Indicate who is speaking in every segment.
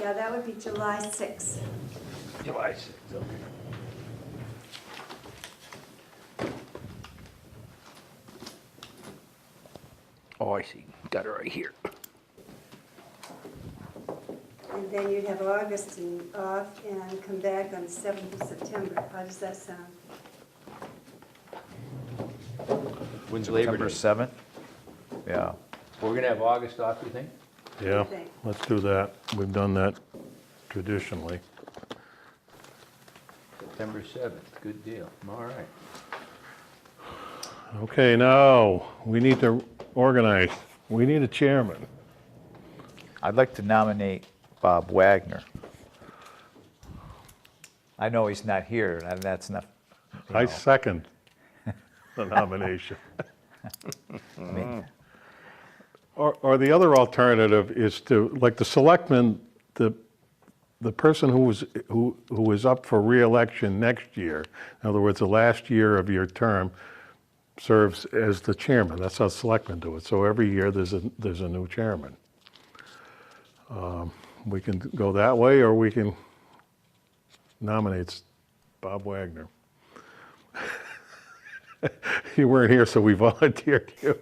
Speaker 1: Yeah, that would be July 6th.
Speaker 2: July sixth, okay. Oh, I see, got it right here.
Speaker 1: And then you'd have August and off and come back on the 7th of September. How does that sound?
Speaker 2: When's
Speaker 3: September 7th? Yeah.
Speaker 2: We're gonna have August off, you think?
Speaker 4: Yeah,
Speaker 1: Okay.
Speaker 4: let's do that. We've done that traditionally.
Speaker 2: September seventh, good deal, all right.
Speaker 4: Okay, now, we need to organize. We need a chairman.
Speaker 3: I'd like to nominate Bob Wagner. I know he's not here, and that's not, you
Speaker 4: I
Speaker 3: know,
Speaker 4: second the nomination.
Speaker 3: I mean,
Speaker 4: Or, or the other alternative is to, like the selectman, the, the person who was, who, who is up for reelection next year, in other words, the last year of your term, serves as the chairman. That's how selectmen do it. So every year, there's a, there's a new chairman. Um, We can go that way, or we can nominate Bob Wagner. You weren't here, so we volunteered you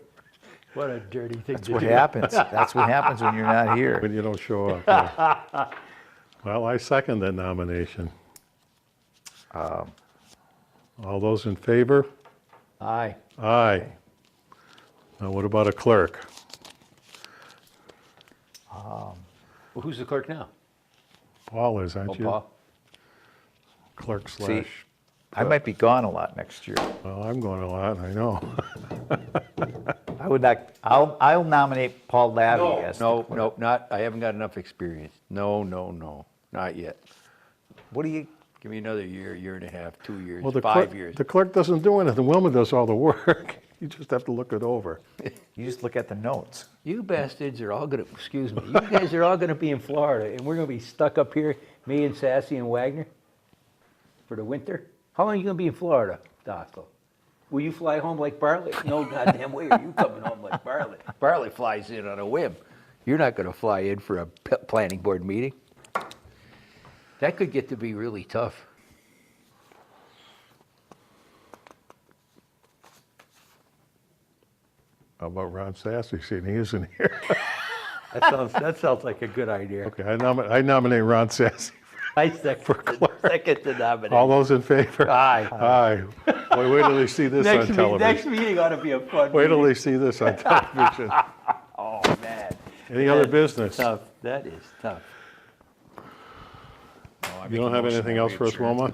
Speaker 2: What a dirty thing
Speaker 3: that's what happens. That's what happens when you're not
Speaker 4: when
Speaker 3: here.
Speaker 4: you don't show up. yeah. Well, I second that nomination.
Speaker 2: Um.
Speaker 4: All those in favor?
Speaker 2: Aye.
Speaker 4: Aye. Now, what about a clerk?
Speaker 2: Well, who's the clerk now?
Speaker 4: Paul is, aren't
Speaker 2: Oh,
Speaker 4: you?
Speaker 2: Paul.
Speaker 4: Clerk slash,
Speaker 3: I might be gone a lot next year.
Speaker 4: well, I'm going a lot, I know.
Speaker 3: I would like, I'll, I'll nominate Paul Labby as the
Speaker 2: No,
Speaker 3: clerk.
Speaker 2: no, not, I haven't got enough experience. No, no, no, not yet.
Speaker 3: What do you,
Speaker 2: Give me another year, year and a half, two years,
Speaker 4: Well, the
Speaker 2: five
Speaker 4: clerk-
Speaker 2: years.
Speaker 4: The clerk doesn't do anything. Wilma does all the work. You just have to look it over.
Speaker 3: you just look at the notes.
Speaker 2: You bastards are all gonna, excuse me, you guys are all gonna be in Florida, and we're gonna be stuck up here, me and Sassy and Wagner, for the winter? How long are you gonna be in Florida, Dockel? Will you fly home like Bartlett? No goddamn way are you coming home like Bartlett. Bartlett flies in on a whim. You're not gonna fly in for a p- planning board meeting. That could get to be really tough.
Speaker 4: How about Ron Sassy, seeing he isn't here?
Speaker 2: That sounds, that sounds like a good idea.
Speaker 4: Okay, I nominate, I nominate Ron Sassy.
Speaker 2: I second, second the
Speaker 4: All
Speaker 2: nomination.
Speaker 4: those in favor?
Speaker 2: Aye.
Speaker 4: Aye. Wait, wait till they see this on
Speaker 2: Next meeting,
Speaker 4: television.
Speaker 2: next meeting ought to be a fun
Speaker 4: Wait till
Speaker 2: meeting.
Speaker 4: they see this on television.
Speaker 2: Oh, man.
Speaker 4: Any other
Speaker 2: That's
Speaker 4: business? You
Speaker 2: Tough, that is tough.
Speaker 4: don't have anything else for us, Wilma?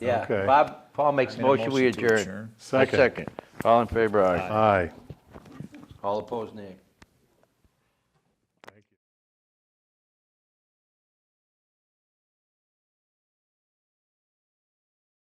Speaker 2: Yeah,
Speaker 4: Okay.
Speaker 2: Bob, Paul makes a
Speaker 3: I'm in a
Speaker 2: motion, we
Speaker 3: motion to
Speaker 2: adjourn.
Speaker 3: adjourn.
Speaker 2: I
Speaker 4: Second.
Speaker 2: All in favor, aye.
Speaker 4: Aye.
Speaker 2: All opposed, nay.